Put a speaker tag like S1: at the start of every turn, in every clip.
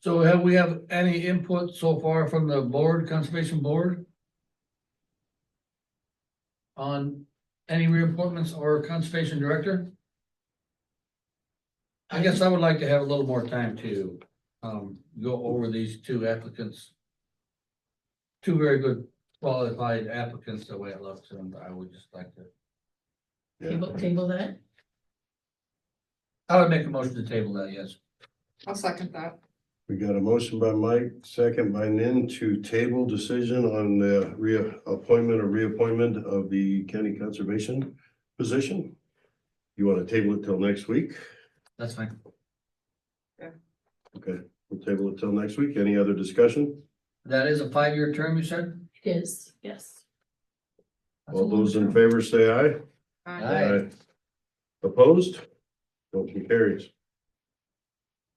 S1: So have we have any input so far from the board, conservation board? On any reappointments or conservation director? I guess I would like to have a little more time to, um, go over these two applicants. Two very good qualified applicants, the way it looks, and I would just like to,
S2: Table, table that?
S1: I would make a motion to table that, yes.
S3: I'll second that.
S4: We got a motion by Mike, second by Nin to table decision on the reappointment or reappointment of the county conservation position. You want to table it till next week?
S1: That's fine.
S4: Okay, we'll table it till next week. Any other discussion?
S1: That is a five-year term, you said?
S2: It is, yes.
S1: That's a
S4: All
S1: long
S4: those in
S1: term.
S4: favor say aye.
S1: Aye.
S3: Aye.
S4: Opposed? Motion carries.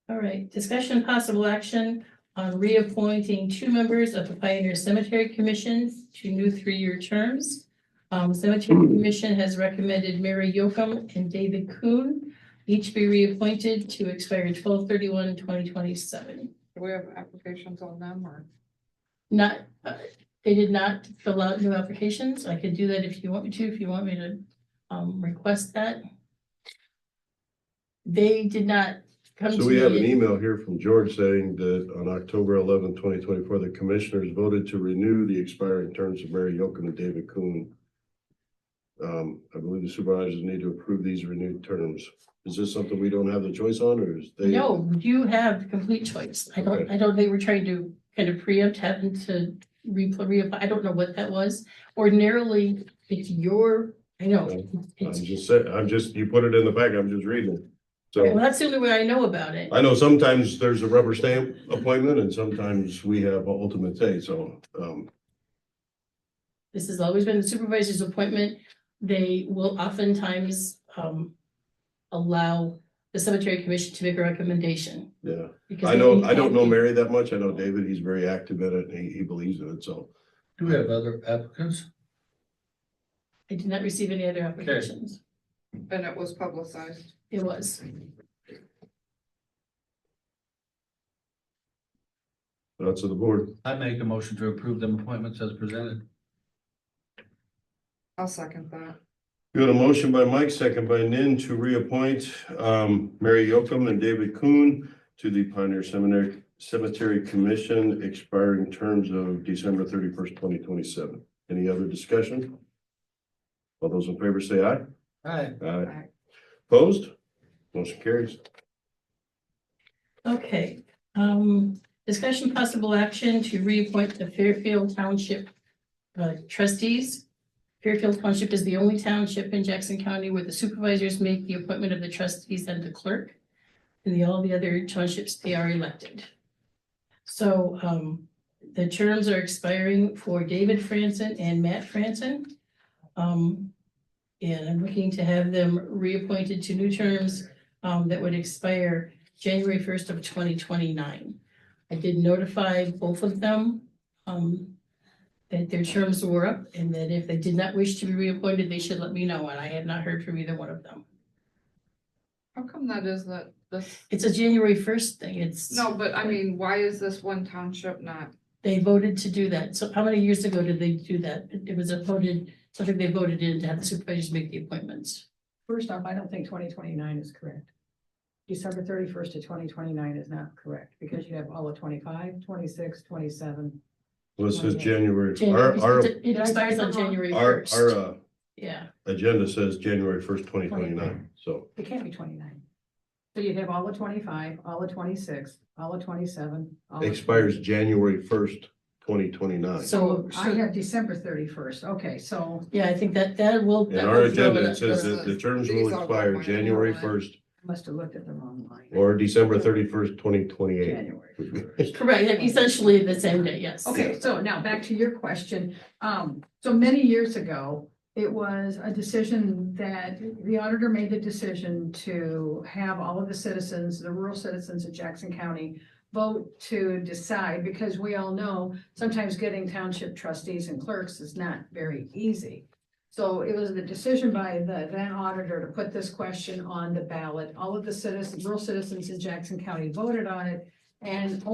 S2: All right, discussion and possible action on reappointing two members of the Pioneer Cemetery Commission to new three-year terms. Um, Cemetery Commission has recommended Mary Yocum and David Kuhn each be reappointed to expire 2027.
S3: Do we have applications on them or?
S2: Not, uh, they did not fill out new applications. I could do that if you want me to, if you want me to um request that. They did not come to me.
S4: So we have an email here from George saying that on October eleventh, twenty twenty-four, the commissioners voted to renew the expiring terms of Mary Yocum and David Kuhn. Um, I believe the supervisors need to approve these renewed terms. Is this something we don't have the choice on or is they?
S2: No, you have complete choice. I don't, I don't think we're trying to kind of preempt having to re, reapply. I don't know what that was. Ordinarily, it's your, I know.
S4: I'm
S2: it's-
S4: just saying, I'm just, you put it in the pack, I'm just reading. it.
S2: Well,
S4: So
S2: that's the only way I know about it.
S4: I know sometimes there's a rubber stamp appointment and sometimes we have ultimate say, so, um,
S2: This has always been the supervisor's appointment. They will oftentimes um allow the cemetery commission to make a recommendation.
S4: yeah.
S2: because
S4: I know,
S2: they-
S4: I don't know Mary that much. I know David, he's very active in it and he, he believes in it, so.
S1: Do we have other applicants?
S2: I did not receive any other applications.
S3: And it was publicized.
S2: It was.
S4: That's to the board.
S1: I make a motion to approve them appointments as presented.
S3: I'll second that.
S4: We got a motion by Mike, second by Nin to reappoint um Mary Yocum and David Kuhn to the Pioneer Seminary Cemetery Commission expiring terms of December thirty-first, twenty twenty-seven. Any other discussion? All those in favor say aye.
S1: Aye.
S4: Aye. Opposed? Motion carries.
S2: Okay, um, discussion possible action to reappoint the Fairfield Township uh, trustees. Fairfield Township is the only township in Jackson County where the supervisors make the appointment of the trustees and the clerk. And the, all the other townships, they are elected. So, um, the terms are expiring for David Franson and Matt Franson. Um, and I'm looking to have them reappointed to new terms, um, that would expire January first of twenty twenty-nine. I did notify both of them, um, that their terms were up and that if they did not wish to be reappointed, they should let me know, and I have not heard from either one of them.
S3: How come that is that this,
S2: It's a January first thing, it's,
S3: no, but I mean, why is this one township not?
S2: they voted to do that, so how many years ago did they do that? It it was a voted, something they voted in to have the supervisors make the appointments.
S5: First off, I don't think twenty twenty-nine is correct. December thirty-first to twenty twenty-nine is not correct, because you have all of 25, 26, 27.
S4: Well, this is January. Our, our,
S2: January- It expires on January
S4: our,
S2: first,
S4: our uh,
S2: yeah,
S4: agenda says January first, twenty twenty-nine, so.
S5: It can't be twenty-nine. So you'd have all of twenty-five, all of twenty-six, all of twenty-seven. all of-
S4: Expires January first, twenty twenty-nine.
S2: so,
S5: I have December thirty-first, okay, so
S2: yeah, I think that, that will.
S4: In
S2: that
S4: our
S2: will throw it
S4: agenda, it
S2: up.
S4: says that the terms
S3: These
S4: will
S3: are
S4: expire
S3: mine.
S4: January first
S5: I must have looked at the wrong line.
S4: or December thirty-first, twenty twenty-eight.
S5: January.
S2: Correct, essentially the same day, yes.
S5: Okay, so now back to your question. Um, so many years ago, it was a decision that the auditor made the decision to have all of the citizens, the rural citizens of Jackson County vote to decide, because we all know sometimes getting township trustees and clerks is not very easy. So it was the decision by the then auditor to put this question on the ballot. All of the citizens, rural citizens in Jackson County voted on it. And